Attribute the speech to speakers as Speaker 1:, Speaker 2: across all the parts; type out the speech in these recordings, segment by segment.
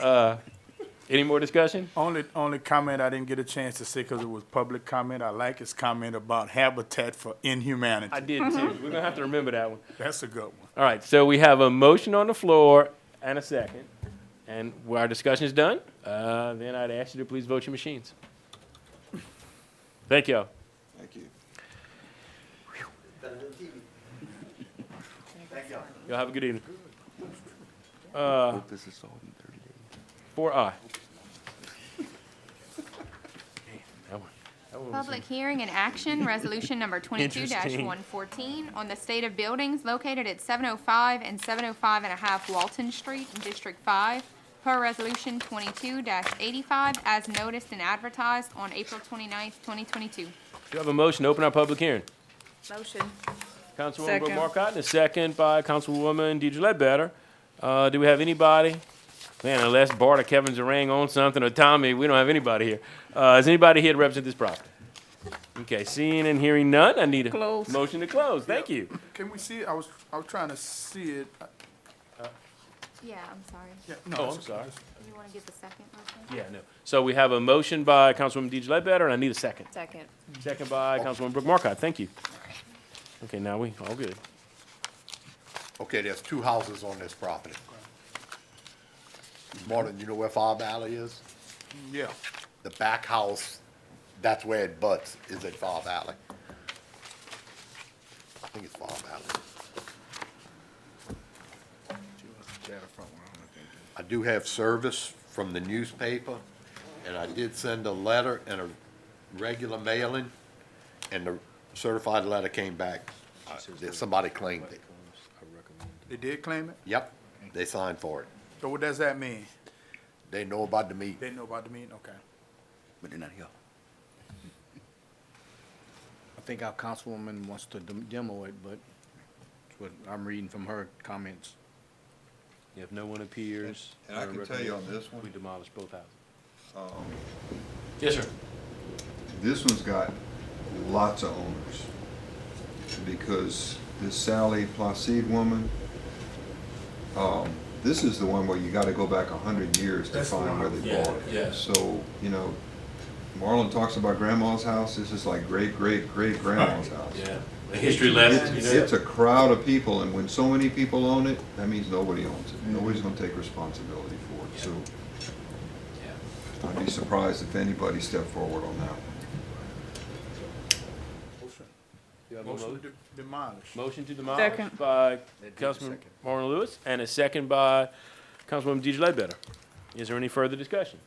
Speaker 1: Uh, any more discussion?
Speaker 2: Only, only comment I didn't get a chance to say because it was public comment. I like his comment about habitat for
Speaker 1: I
Speaker 2: inhumanity.
Speaker 1: did too. We're gonna have to remember that one.
Speaker 2: That's a good one.
Speaker 1: All right, so we have a motion on the floor and a second. And when our discussion is done, uh, then I'd ask you to please vote your machines. Thank y'all.
Speaker 3: Thank you.
Speaker 1: Y'all have a good evening. Uh,
Speaker 3: Hope this is solved in thirty days.
Speaker 1: four I. That one- that one was-
Speaker 4: Public hearing and action, resolution number twenty-two
Speaker 1: Interesting.
Speaker 4: one fourteen, on the state of buildings located at seven oh five and seven oh five and a half Walton Street, in District Five, per resolution twenty-two eighty-five, as noticed and advertised on April twenty-ninth, twenty twenty-two.
Speaker 1: Do you have a motion to open our public hearing?
Speaker 5: Motion.
Speaker 1: Councilwoman Brooke
Speaker 5: Second.
Speaker 1: Marcotte, and a second by Councilwoman Deidre Ledbetter. Uh, do we have anybody? Man, unless Bart or Kevin Zarang on something, or Tommy, we don't have anybody here. Uh, is anybody here to represent this property? Okay, seeing and hearing none, I need a
Speaker 5: Close.
Speaker 1: motion to close. Thank you.
Speaker 2: Can we see it? I was, I was trying to see it. I-
Speaker 4: Yeah, I'm sorry.
Speaker 2: yeah, no,
Speaker 1: Oh,
Speaker 2: it's
Speaker 1: I'm
Speaker 2: okay.
Speaker 1: sorry.
Speaker 4: You wanna get the second motion?
Speaker 1: Yeah, no. So we have a motion by Councilwoman Deidre Ledbetter, and I need a second.
Speaker 5: Second.
Speaker 1: Second by Councilwoman Brooke Marcotte. Thank you. Okay, now we all good.
Speaker 6: Okay, there's two houses on this property. Martin, you know where Far Valley is?
Speaker 2: Yeah,
Speaker 6: The back house, that's where it butts, is at Far Valley. I think it's Far Valley. I do have service from the newspaper, and I did send a letter and a regular mailing, and the certified letter came back. Uh, that Somebody claimed it.
Speaker 2: they did claim it.
Speaker 6: Yep, they signed for it.
Speaker 2: So what does that mean?
Speaker 6: They know about the meeting.
Speaker 2: They know about the meeting? Okay.
Speaker 3: But they're not here.
Speaker 7: I think our councilwoman wants to dem- demo it, but it's what I'm reading from her comments.
Speaker 1: If no one appears,
Speaker 3: And I can tell you on this
Speaker 1: we
Speaker 3: one,
Speaker 1: demolish both houses.
Speaker 3: um,
Speaker 1: Yes, sir.
Speaker 3: this one's got lots of owners. Because this Sally Placide woman, um, this is the one where you gotta go back a hundred years to
Speaker 2: That's the
Speaker 3: find
Speaker 2: one.
Speaker 3: where they
Speaker 1: Yeah,
Speaker 3: bought it.
Speaker 1: yeah.
Speaker 3: So, you know, Marlon talks about grandma's house, this is like great, great, great grandma's house.
Speaker 1: The history
Speaker 3: It's- It's a crowd of people, and when so many people own it, that means nobody owns it. Nobody's gonna take responsibility for it, so. I'd be surprised if anybody stepped forward on that one.
Speaker 2: Motion to demolish.
Speaker 1: Motion to demolish
Speaker 5: Second.
Speaker 1: by Councilman Marlon Lewis and a second by Councilwoman Deidre Ledbetter. Is there any further discussion?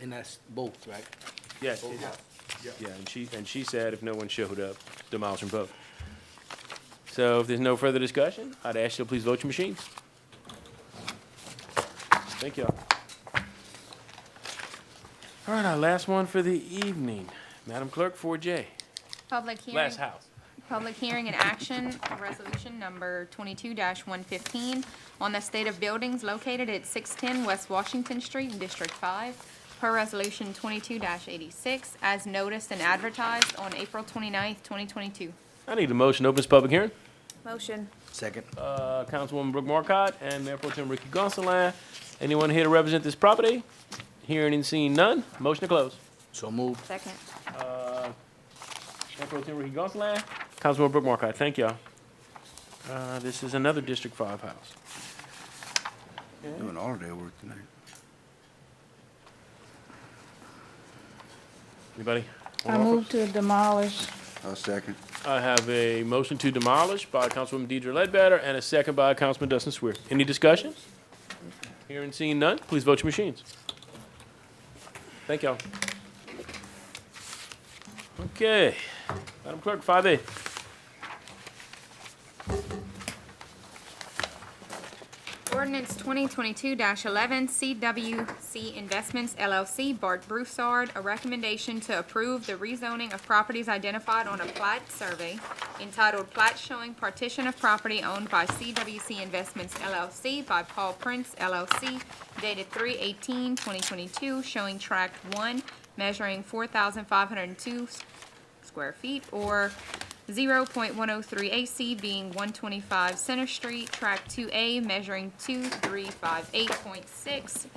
Speaker 7: And that's both, right?
Speaker 1: Yes. it- Oh, Yeah, and she, and she said if no one showed up, demolish and vote. So if there's no further discussion, I'd ask you to please vote your machines. Thank y'all. All right, our last one for the evening. Madam Clerk, 4J,
Speaker 4: Public hearing.
Speaker 1: last house.
Speaker 4: Public hearing and action, resolution number twenty-two one fifteen, on the state of buildings located at six-ten West Washington Street in District Five, per resolution twenty-two eighty-six, as noticed and advertised on April 29th, twenty-two.
Speaker 1: I need a motion to open this public hearing.
Speaker 5: Motion.
Speaker 7: Second.
Speaker 1: uh, Councilwoman Brooke Marcotte and Mayor Pro Tem Ricky Gonsalas. Anyone here to represent this property? Hearing and seeing none, motion to close.
Speaker 7: So moved.
Speaker 4: Second.
Speaker 1: Mayor Pro Tem Ricky Gonsalas, Councilwoman Brooke Marcotte, thank y'all. Uh, This is another District Five house.
Speaker 3: Doing all day work tonight.
Speaker 1: Anybody?
Speaker 8: I move to demolish.
Speaker 3: I'll second.
Speaker 1: I have a motion to demolish by Councilwoman Deidre Ledbetter and a second by Councilman Dustin Sweer. Any discussion? Hearing and seeing none, please vote your machines. Thank y'all. Okay, Madam Clerk, five A.
Speaker 4: Ordinance twenty twenty-two eleven, CWC Investments LLC, Bart Broussard, a recommendation to approve the rezoning of properties identified on a plat survey entitled Plat Showing Partition of Property Owned by CWC Investments LLC by Paul Prince LLC, dated 3-18-2022, showing tract one, measuring four thousand five hundred and two square feet, or zero point one oh three AC being one twenty-five Center Street, track two A measuring two three five eight point six,